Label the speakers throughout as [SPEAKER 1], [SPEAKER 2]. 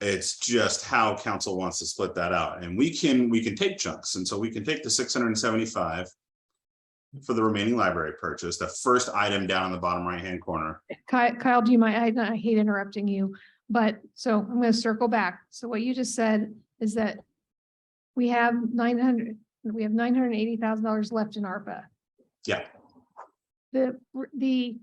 [SPEAKER 1] It's just how council wants to split that out, and we can, we can take chunks, and so we can take the six hundred and seventy-five. For the remaining library purchase, the first item down in the bottom right-hand corner,
[SPEAKER 2] Kyle, Kyle, do you mind? I, I hate interrupting you, but so I'm gonna circle back. So what you just said is that we have nine hundred, we have nine hundred and eighty thousand dollars left in ARPA.
[SPEAKER 1] Yeah.
[SPEAKER 2] The, the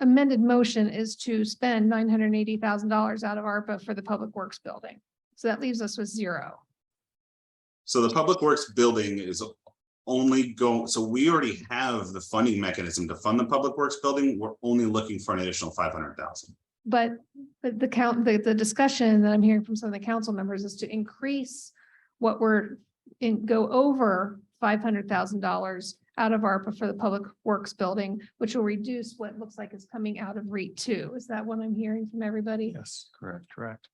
[SPEAKER 2] amended motion is to spend nine hundred and eighty thousand dollars out of ARPA for the Public Works Building. So that leaves us with zero.
[SPEAKER 1] so the public works building is. Only go, so we already have the funding mechanism to fund the public works building, we're only looking for an additional five hundred thousand.
[SPEAKER 2] But, but the count, the, the discussion that I'm hearing from some of the council members is to increase what we're in, go over five hundred thousand dollars out of ARPA for the Public Works Building, which will reduce what looks like is coming out of REIT two. Is that what I'm hearing from everybody?
[SPEAKER 3] Yes, correct, correct.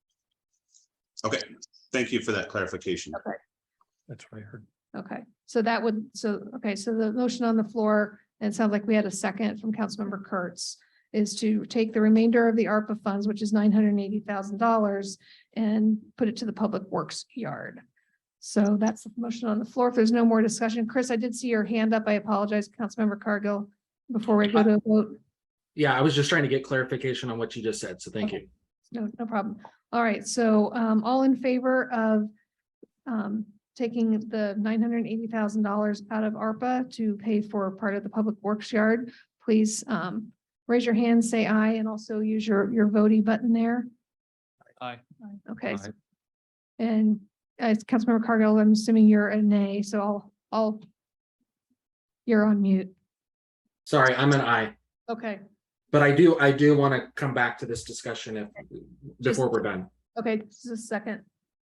[SPEAKER 1] Okay, thank you for that clarification.
[SPEAKER 3] That's what I heard.
[SPEAKER 2] Okay, so that would, so, okay, so the motion on the floor, and it sounds like we had a second from Councilmember Kurtz, is to take the remainder of the ARPA funds, which is nine hundred and eighty thousand dollars, and put it to the Public Works Yard. So that's the motion on the floor. If there's no more discussion, Chris, I did see your hand up. I apologize, Councilmember Cargill, before we go to a vote.
[SPEAKER 4] Yeah, I was just trying to get clarification on what you just said, so thank you.
[SPEAKER 2] No, no problem. All right, so um, all in favor of um, taking the nine hundred and eighty thousand dollars out of ARPA to pay for part of the public works yard, please um, raise your hand, say aye, and also use your, your voting button there.
[SPEAKER 3] Aye.
[SPEAKER 2] Okay. so-
[SPEAKER 3] Aye.
[SPEAKER 2] And as Councilmember Cargill, I'm assuming you're a nay, so I'll, I'll you're on mute.
[SPEAKER 4] Sorry, I'm an I,
[SPEAKER 2] Okay,
[SPEAKER 4] but I do, I do want to come back to this discussion if, before we're done.
[SPEAKER 2] okay, just a second.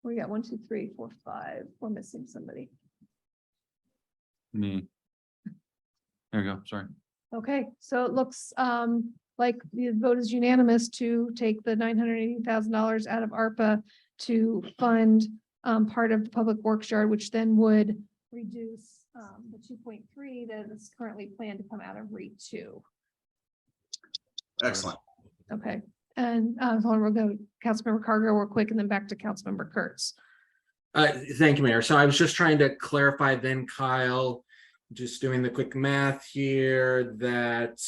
[SPEAKER 2] We got one, two, three, four, five. We're missing somebody.
[SPEAKER 3] Me. There we go, sorry.
[SPEAKER 2] Okay, so it looks um like the vote is unanimous to take the nine hundred eighty thousand dollars out of ARPA to fund um part of the public works yard, which then would reduce um the two point three that is currently planned to come out of REIT two.
[SPEAKER 1] Excellent.
[SPEAKER 2] Okay, and uh, so we'll go Councilmember Cargo real quick and then back to Councilmember Kurtz.
[SPEAKER 4] Uh, thank you, Mayor. So I was just trying to clarify then, Kyle, just doing the quick math here, that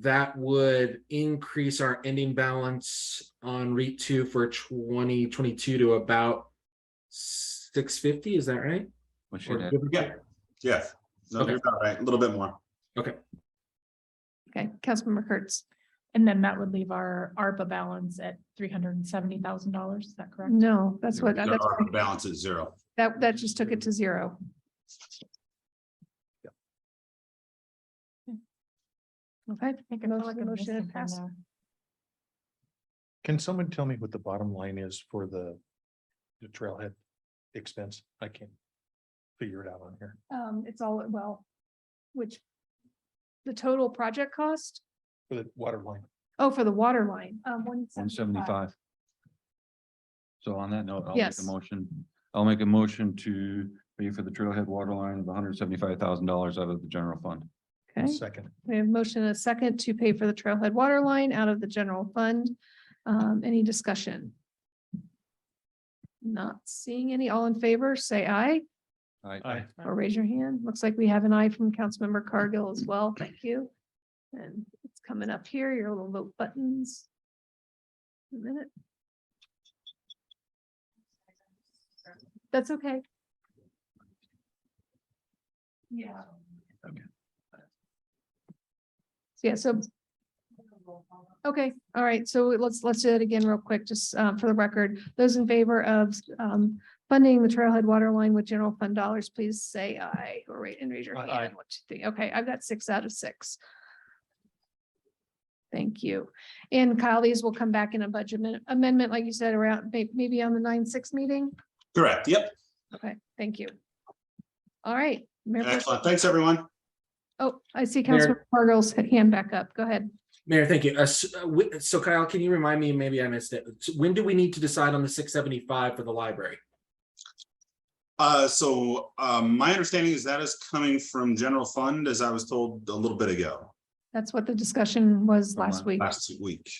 [SPEAKER 4] that would increase our ending balance on REIT two for twenty twenty-two to about six fifty, is that right?
[SPEAKER 3] What's
[SPEAKER 4] Or
[SPEAKER 3] your dad?
[SPEAKER 4] give or take?
[SPEAKER 1] Yeah, yeah. No, you're about right, a little bit more.
[SPEAKER 2] Okay, Councilmember Kurtz.
[SPEAKER 5] And then that would leave our ARPA balance at three hundred and seventy thousand dollars, is that correct?
[SPEAKER 2] No, that's what,
[SPEAKER 1] Our
[SPEAKER 2] that's-
[SPEAKER 1] balance is zero.
[SPEAKER 2] that, that just took it to zero. Okay.
[SPEAKER 5] I think I feel
[SPEAKER 2] Motion-
[SPEAKER 5] like I'm
[SPEAKER 2] motion
[SPEAKER 5] missing
[SPEAKER 2] passed.
[SPEAKER 5] somewhere.
[SPEAKER 3] Can someone tell me what the bottom line is for the the trailhead expense? I can't figure it out on here.
[SPEAKER 2] Um, it's all, well, which the total project cost,
[SPEAKER 3] For the water line,
[SPEAKER 2] oh, for the water line, um, one.
[SPEAKER 6] One seventy-five. So on that note, I'll make
[SPEAKER 2] Yes.
[SPEAKER 6] a motion, I'll make a motion to pay for the trailhead water line of hundred seventy-five thousand dollars out of the general fund.
[SPEAKER 3] One
[SPEAKER 2] Okay,
[SPEAKER 3] second.
[SPEAKER 2] we have motion and a second to pay for the trailhead water line out of the general fund. Um, any discussion? Not seeing any. All in favor, say aye
[SPEAKER 3] Aye.
[SPEAKER 2] or raise your hand. Looks like we have an aye from Councilmember Cargill as well. Thank you. And it's coming up here, your little vote buttons. A minute. That's okay.
[SPEAKER 5] Yeah.
[SPEAKER 2] Yeah, so. Okay, all right, so let's, let's do that again real quick, just uh, for the record. Those in favor of um, funding the trailhead water line with general fund dollars, please say aye or ra- and raise your
[SPEAKER 3] Aye,
[SPEAKER 2] hand.
[SPEAKER 3] aye.
[SPEAKER 2] One, two, three. Okay, I've got six out of six. Thank you. And Kyle, these will come back in a budget amen- amendment, like you said, around may- maybe on the nine, six meeting.
[SPEAKER 1] Correct, yep,
[SPEAKER 2] Okay, thank you. All right. Mayor Pro-
[SPEAKER 1] excellent, thanks, everyone.
[SPEAKER 2] Oh, I see
[SPEAKER 4] Mayor-
[SPEAKER 2] Councilmember Cargill's hand back up. Go ahead.
[SPEAKER 4] Mayor, thank you. Uh, s- uh, wi- So Kyle, can you remind me, maybe I missed it, s- when do we need to decide on the six seventy-five for the library?
[SPEAKER 1] Uh, so, um, my understanding is that is coming from general fund, as I was told a little bit ago,
[SPEAKER 2] That's what the discussion was
[SPEAKER 6] From
[SPEAKER 2] last
[SPEAKER 6] last-
[SPEAKER 2] week.
[SPEAKER 1] last week.